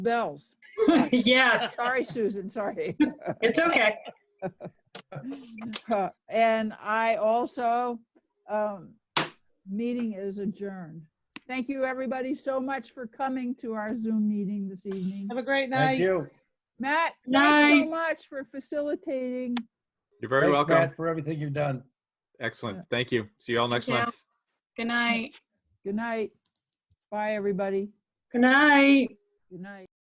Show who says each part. Speaker 1: bells.
Speaker 2: Yes,
Speaker 1: Sorry, Susan, sorry.
Speaker 2: it's okay.
Speaker 1: Uh, And I also, um, meeting is adjourned. Thank you, everybody, so much for coming to our Zoom meeting this evening.
Speaker 3: Have a great night.
Speaker 4: Thank you.
Speaker 1: Matt, thanks
Speaker 2: Night.
Speaker 1: so much for facilitating.
Speaker 5: You're very
Speaker 4: Thanks,
Speaker 5: welcome.
Speaker 4: Matt, For everything you've done.
Speaker 5: Excellent. Thank you. See you all next
Speaker 2: you.
Speaker 5: month.
Speaker 2: Good night.
Speaker 1: Good night. Bye, everybody.
Speaker 2: Good night.
Speaker 1: Good night.